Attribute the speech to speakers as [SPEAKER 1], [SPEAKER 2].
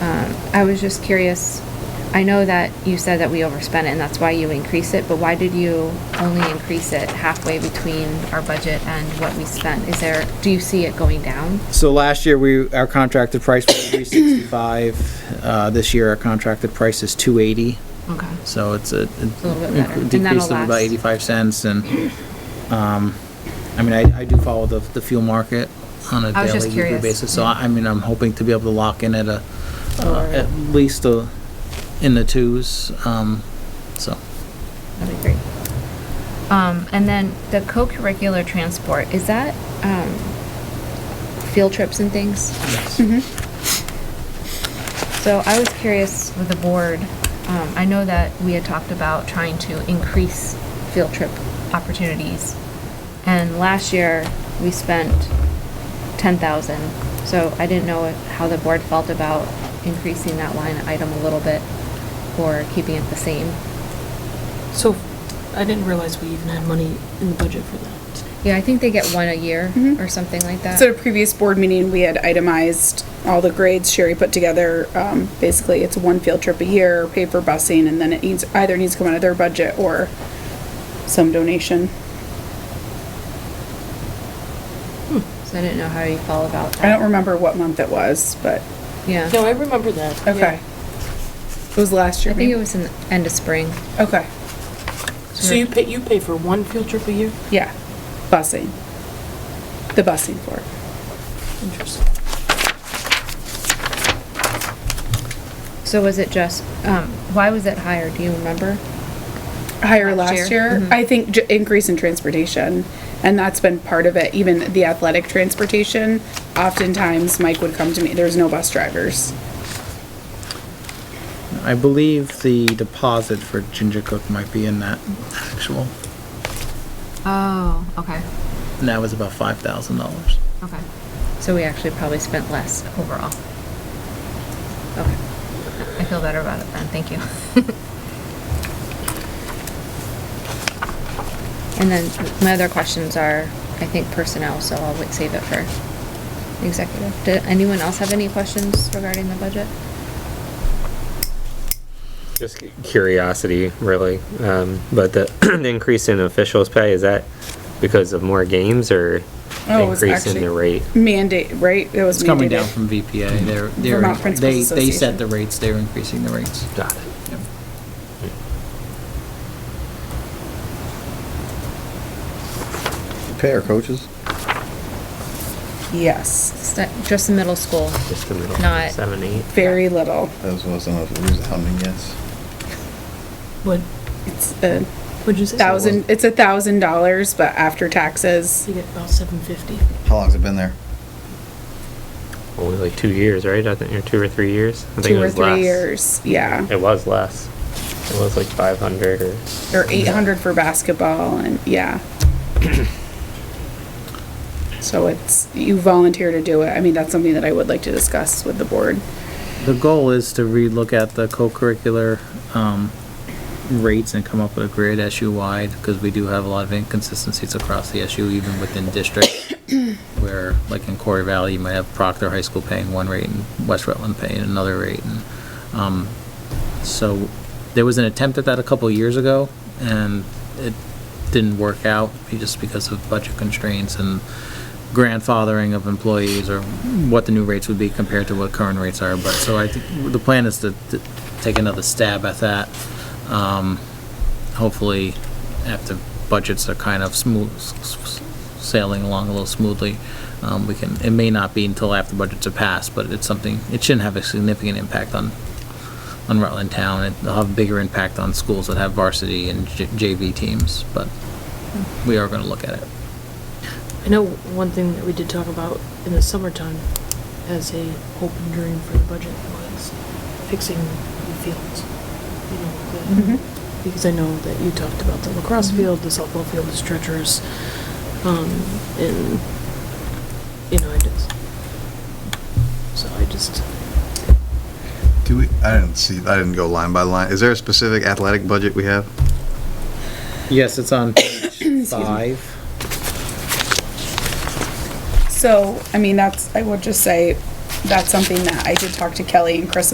[SPEAKER 1] Uh, I was just curious, I know that you said that we overspent it and that's why you increase it, but why did you only increase it halfway between our budget and what we spent? Is there, do you see it going down?
[SPEAKER 2] So last year, we, our contracted price was three sixty-five, uh, this year our contracted price is two eighty,
[SPEAKER 1] Okay.
[SPEAKER 2] so it's
[SPEAKER 1] a
[SPEAKER 2] a.
[SPEAKER 1] little bit better, and
[SPEAKER 2] Decrease
[SPEAKER 1] that'll
[SPEAKER 2] of about
[SPEAKER 1] last.
[SPEAKER 2] eighty-five cents and, um, I mean, I, I do follow the, the fuel market on a
[SPEAKER 1] I was
[SPEAKER 2] daily,
[SPEAKER 1] just
[SPEAKER 2] weekly
[SPEAKER 1] curious.
[SPEAKER 2] basis, so I, I mean, I'm hoping to be able to lock in at a, uh,
[SPEAKER 1] Lower.
[SPEAKER 2] at least a, in the twos, um, so.
[SPEAKER 1] That'd be great. Um, and then the co-curricular transport, is that, um, field trips and things? Mm-hmm. So I was curious with the board, um, I know that we had talked about trying to increase field trip opportunities. And last year, we spent ten thousand, so I didn't know how the board felt about increasing that line item a little bit or keeping it the same.
[SPEAKER 3] So, I didn't realize we even had money in the budget for that.
[SPEAKER 1] Yeah, I think they get one a year or something like that.
[SPEAKER 4] So at a previous board meeting, we had itemized all the grades Sherry put together. Um, basically, it's one field trip a year, pay for busing, and then it needs, either needs to come out of their budget or some donation.
[SPEAKER 1] So I didn't know how you felt about that.
[SPEAKER 4] I don't remember what month it was, but,
[SPEAKER 1] Yeah.
[SPEAKER 3] No, I remember that. yeah.
[SPEAKER 4] okay. It was last year.
[SPEAKER 1] I think it
[SPEAKER 4] maybe?
[SPEAKER 1] was in the end of spring.
[SPEAKER 4] Okay,
[SPEAKER 3] So you pay, you pay for one field trip a year?
[SPEAKER 4] yeah, busing. The busing for it.
[SPEAKER 3] Interesting.
[SPEAKER 1] So was it just, um, why was it higher? Do you remember?
[SPEAKER 4] higher
[SPEAKER 1] Last
[SPEAKER 4] last
[SPEAKER 1] year. Mm-hmm.
[SPEAKER 4] year. I think j- increase in transportation, and that's been part of it, even the athletic transportation. Oftentimes, Mike would come to me, there's no bus drivers.
[SPEAKER 2] I believe the deposit for Ginger Cook might be in that actual,
[SPEAKER 1] Oh, okay,
[SPEAKER 2] and that was about five thousand dollars.
[SPEAKER 1] okay. So we actually probably spent less overall. Okay. I feel better about it then, thank you. And then my other questions are, I think personnel, so I'll wait- save it for executive. Did anyone else have any questions regarding the budget?
[SPEAKER 5] Just cu- curiosity, really. Um, but the, the increase in officials' pay, is that because of more games or
[SPEAKER 4] Oh, it was
[SPEAKER 5] increase in
[SPEAKER 4] actually-
[SPEAKER 5] the rate?
[SPEAKER 4] Mandate, right? It was
[SPEAKER 2] It's coming down
[SPEAKER 4] mandated.
[SPEAKER 2] from VPA. They're,
[SPEAKER 4] Vermont
[SPEAKER 2] they're, they,
[SPEAKER 4] Principals
[SPEAKER 2] they set
[SPEAKER 4] Association.
[SPEAKER 2] the rates, they're increasing the rates.
[SPEAKER 5] Got it.
[SPEAKER 2] Yep.
[SPEAKER 6] Pay our coaches?
[SPEAKER 4] Yes,
[SPEAKER 1] Stu- Just the middle school.
[SPEAKER 5] Just the middle.
[SPEAKER 1] Not-
[SPEAKER 5] Seven, eight.
[SPEAKER 4] very little.
[SPEAKER 6] That was wasn't a resounding yes.
[SPEAKER 3] What,
[SPEAKER 4] It's a
[SPEAKER 3] what'd you say?
[SPEAKER 4] thousand, it's a thousand dollars, but after taxes,
[SPEAKER 3] You get about seven fifty.
[SPEAKER 6] How long's it been there?
[SPEAKER 5] Only like two years, right? I think, or two or three years? I think it
[SPEAKER 4] two or
[SPEAKER 5] was
[SPEAKER 4] three
[SPEAKER 5] less.
[SPEAKER 4] years, yeah.
[SPEAKER 5] It was less. It was like 500 or.
[SPEAKER 4] Or eight hundred for basketball and, yeah. So it's, you volunteer to do it. I mean, that's something that I would like to discuss with the board.
[SPEAKER 2] The goal is to relook at the co-curricular, um, rates and come up with a grid SU-wide, because we do have a lot of inconsistencies across the SU, even within districts. Where, like in Corey Valley, you might have Proctor High School paying one rate and West Rutland paying another rate, and, um, so there was an attempt at that a couple of years ago, and it didn't work out, just because of budget constraints and grandfathering of employees or what the new rates would be compared to what current rates are, but, so I think, the plan is to, to take another stab at that. Um, hopefully, after budgets are kind of smooth, s- s- sailing along a little smoothly, um, we can, it may not be until after budgets are passed, but it's something, it shouldn't have a significant impact on, on Rutland Town. It'll have a bigger impact on schools that have varsity and J- JV teams, but we are gonna look at it.
[SPEAKER 3] I know one thing that we did talk about in the summertime as a hope and dream for the budget was fixing the fields. You
[SPEAKER 4] Mm-hmm.
[SPEAKER 3] know, the- Because I know that you talked about the lacrosse field, the softball field is treacherous. Um, and, you know, I just, so I just,
[SPEAKER 6] Do we, I didn't see, I didn't go line by line. Is there a specific athletic budget we have?
[SPEAKER 2] Yes, it's on page five.
[SPEAKER 4] So, I mean, that's, I would just say, that's something that I did talk to Kelly and Chris